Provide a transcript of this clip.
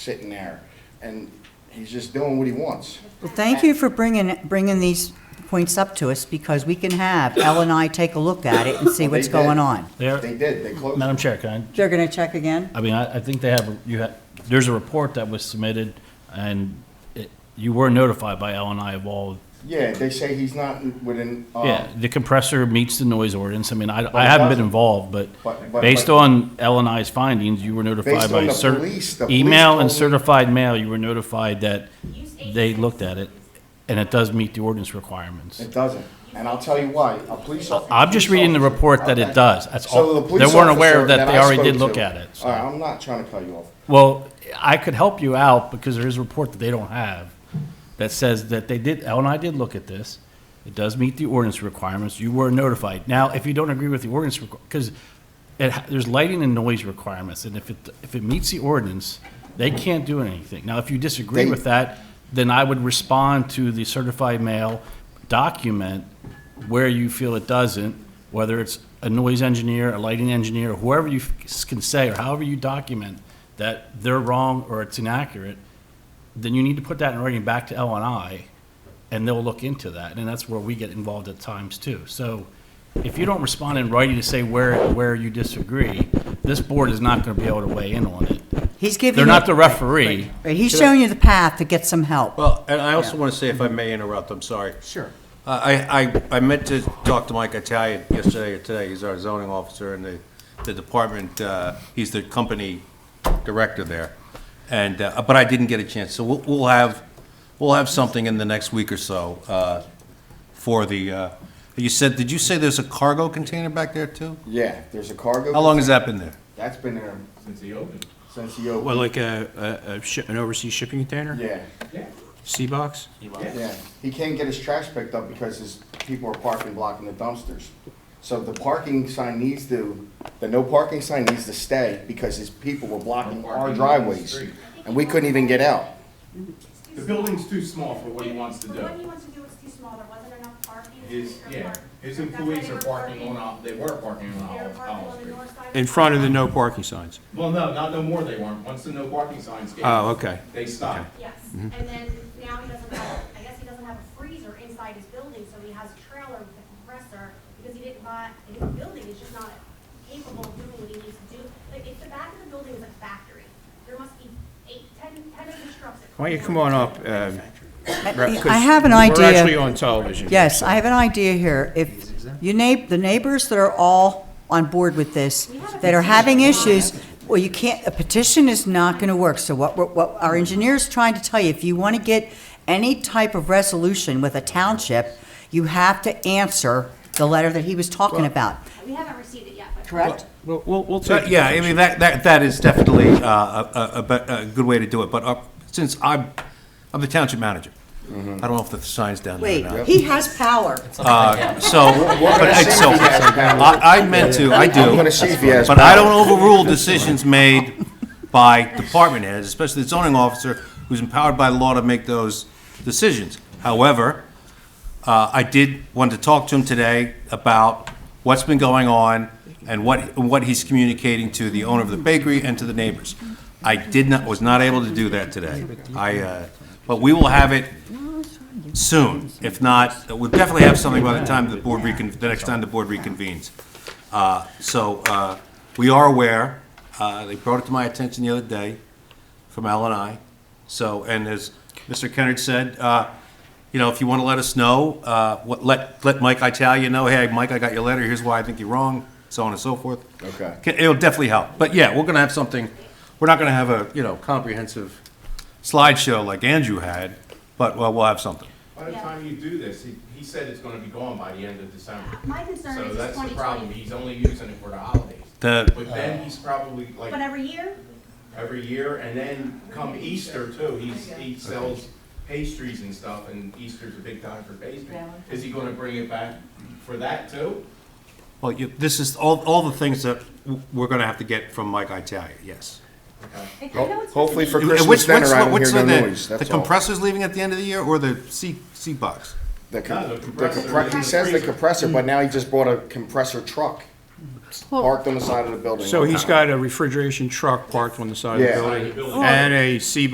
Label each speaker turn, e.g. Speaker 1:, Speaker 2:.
Speaker 1: sitting there, and he's just doing what he wants.
Speaker 2: Well, thank you for bringing, bringing these points up to us, because we can have Elle and I take a look at it and see what's
Speaker 1: They did.
Speaker 2: going on.
Speaker 3: There-
Speaker 1: They did, they closed.
Speaker 3: Madam Chair, can
Speaker 2: They're gonna check again?
Speaker 3: I, I mean, I, I think they have, you have, there's a report that was submitted, and it, you were notified by L and I of all,
Speaker 1: Yeah, they say he's not within,
Speaker 3: yeah,
Speaker 1: um,
Speaker 3: the compressor meets the noise ordinance, I mean, I,
Speaker 1: it
Speaker 3: I haven't been
Speaker 1: doesn't.
Speaker 3: involved, but
Speaker 1: But- but-
Speaker 3: based
Speaker 1: but-
Speaker 3: on L and I's findings, you were notified
Speaker 1: Based
Speaker 3: by
Speaker 1: on the
Speaker 3: cer-
Speaker 1: police, the police
Speaker 3: email and
Speaker 1: told me-
Speaker 3: certified mail, you were notified that they looked at it, and it does meet the ordinance requirements.
Speaker 1: it doesn't. And I'll tell you why, a police officer.
Speaker 3: I'm just reading the report that it does, that's
Speaker 1: So
Speaker 3: all,
Speaker 1: the
Speaker 3: they
Speaker 1: police
Speaker 3: weren't aware
Speaker 1: officer
Speaker 3: that they
Speaker 1: I
Speaker 3: already did
Speaker 1: spoke
Speaker 3: look
Speaker 1: to-
Speaker 3: at it, so.
Speaker 1: All right, I'm not trying to cut you off.
Speaker 3: Well, I could help you out because there is a report that they don't have that says that they did, Al and I did look at this. It does meet the ordinance requirements. You were notified. Now, if you don't agree with the ordinance, because it, ha- there's lighting and noise requirements, and if it, if it meets the ordinance, they can't do anything. Now, if you disagree
Speaker 1: They-
Speaker 3: with that, then I would respond to the certified mail document where you feel it doesn't, whether it's a noise engineer, a lighting engineer, whoever you f- can say, or however you document that they're wrong or it's inaccurate, then you need to put that in writing back to L and I, and they'll look into that, and that's where we get involved at times too. So if you don't respond in writing to say where, where you disagree, this board is not gonna be able to weigh in on it.
Speaker 2: He's giving.
Speaker 3: They're not the
Speaker 2: you-
Speaker 3: referee.
Speaker 2: Right, he's showing you the path to get some help.
Speaker 4: Well, and I also want to say, if I may interrupt, I'm sorry. Uh,
Speaker 2: Sure.
Speaker 4: I, I, I meant to talk to Mike Italian yesterday or today, he's our zoning officer in the, the department, uh, he's the company director there. And, uh, but I didn't get a chance, so we'll, we'll have, we'll have something in the next week or so, uh, for the, uh, you said, did you say there's a cargo container back there too?
Speaker 1: Yeah, there's a cargo.
Speaker 4: How long has that been there?
Speaker 1: That's been there
Speaker 5: Since he opened.
Speaker 1: since he opened.
Speaker 6: Well, like a, a- a, shi- an overseas shipping container?
Speaker 1: Yeah,
Speaker 5: Yeah.
Speaker 6: Sea box?
Speaker 1: yeah. He can't get his trash picked up because his people are parking blocking the dumpsters. So the parking sign needs to, the no parking sign needs to stay because his people were blocking
Speaker 5: No parking on
Speaker 1: our
Speaker 5: the
Speaker 1: driveways.
Speaker 5: street.
Speaker 1: And we couldn't even get out.
Speaker 5: The building's too small for what he wants to
Speaker 7: But What he
Speaker 5: do.
Speaker 7: wants to do is too small, there wasn't enough parking.
Speaker 5: His,
Speaker 7: They're
Speaker 5: yeah,
Speaker 7: park-
Speaker 5: his
Speaker 7: that's why
Speaker 5: employees
Speaker 7: they
Speaker 5: are
Speaker 7: were
Speaker 5: parking on, Ol- they were parking on
Speaker 7: They were
Speaker 5: Olive,
Speaker 7: parking
Speaker 5: Olive
Speaker 7: on the
Speaker 5: Street.
Speaker 7: north side.
Speaker 6: In front of the no parking signs?
Speaker 5: Well, no, not no more they weren't. Once the no parking signs came.
Speaker 6: Oh, okay.
Speaker 5: They stopped.
Speaker 7: Yes,
Speaker 6: Mm-hmm.
Speaker 7: and then now he doesn't have, I guess he doesn't have a freezer inside his building, so he has a trailer with a compressor, because he didn't buy, his building is just not capable of doing what he needs to do. Like, if the back of the building is a factory, there must be eight, ten, ten of these trucks. that
Speaker 6: Why don't you come on up? um, Brett, 'cause
Speaker 2: I have an idea.
Speaker 6: We're actually on television. here,
Speaker 2: Yes,
Speaker 6: so-
Speaker 2: I have an idea here. If you neigh, the neighbors that are all on board with this, that are having issues, well, you can't, a petition is not gonna work. So what, we're- what our engineer's trying to tell you, if you wanna get any type of resolution with a township, you have to answer the letter that he was talking about,
Speaker 7: We haven't received it yet, but.
Speaker 2: correct?
Speaker 6: We'll, we'll- we'll
Speaker 4: So,
Speaker 6: take.
Speaker 4: yeah, I mean, that, that, that is definitely uh, a, a- a, bet- a good way to do it, but uh, since I'm, I'm the township manager, I don't know if the sign's down there
Speaker 2: Wait,
Speaker 4: or not.
Speaker 2: he has power.
Speaker 4: So, but I, so, I, I meant to, I do.
Speaker 1: I'm gonna see if he has
Speaker 4: But I don't overrule decisions made by department heads, especially the zoning officer, who's empowered by law to make those decisions. However, uh, I did want to talk to him today about what's been going on and what, what he's communicating to the owner of the bakery and to the neighbors. I did not, was not able to do that today. I, uh, but we will have it soon. If not, we'll definitely have something by the time the board recon, the next time the board reconvenes. Uh, So uh, we are aware, uh, they brought it to my attention the other day from Al and I. So, and as Mr. Kennard said, uh, you know, if you want to let us know, uh, what- let, let Mike Italia know, hey, Mike, I got your letter, here's why I think you're wrong, so on and so forth.
Speaker 1: Okay.
Speaker 4: Ca- It'll definitely help. But yeah, we're going to have something, we're not going to have a, you know, comprehensive slideshow like Andrew had, but well, we'll have something.
Speaker 5: By the
Speaker 7: Yeah.
Speaker 5: time you do this, he, he said it's gonna be gone by the end of December.
Speaker 7: My concern is
Speaker 5: So
Speaker 7: it's
Speaker 5: that's the
Speaker 7: 2020.
Speaker 5: problem. He's only using it for the holidays.
Speaker 4: The-
Speaker 5: But
Speaker 6: Uh.
Speaker 5: then he's probably like
Speaker 7: But every year,
Speaker 5: every year, and then come Easter too, he's, he sells pastries and stuff, and Easter's a big time for pastry. Is he gonna bring it back for that too?
Speaker 4: Well, you, this is all, all the things that w- we're going to have to get from Mike Italia, yes.
Speaker 7: I I know it's.
Speaker 1: Hopefully for
Speaker 4: And
Speaker 1: Christmas
Speaker 4: which-
Speaker 1: dinner,
Speaker 4: which-
Speaker 1: I don't
Speaker 4: which
Speaker 1: hear
Speaker 4: the-
Speaker 1: no noise,
Speaker 4: The
Speaker 1: that's all.
Speaker 4: compressor's leaving at the end of the year, or the C, C box?
Speaker 1: The com-
Speaker 5: No, the
Speaker 1: the
Speaker 5: compressor
Speaker 1: compre-
Speaker 5: is
Speaker 1: he
Speaker 5: in the
Speaker 1: says the
Speaker 5: freezer.
Speaker 1: compressor, but now he just bought a compressor truck. parked on the side of the building.
Speaker 6: So
Speaker 1: all the
Speaker 6: he's
Speaker 1: time.
Speaker 6: got a refrigeration truck parked on the side of the
Speaker 1: Yeah.
Speaker 6: building and a sea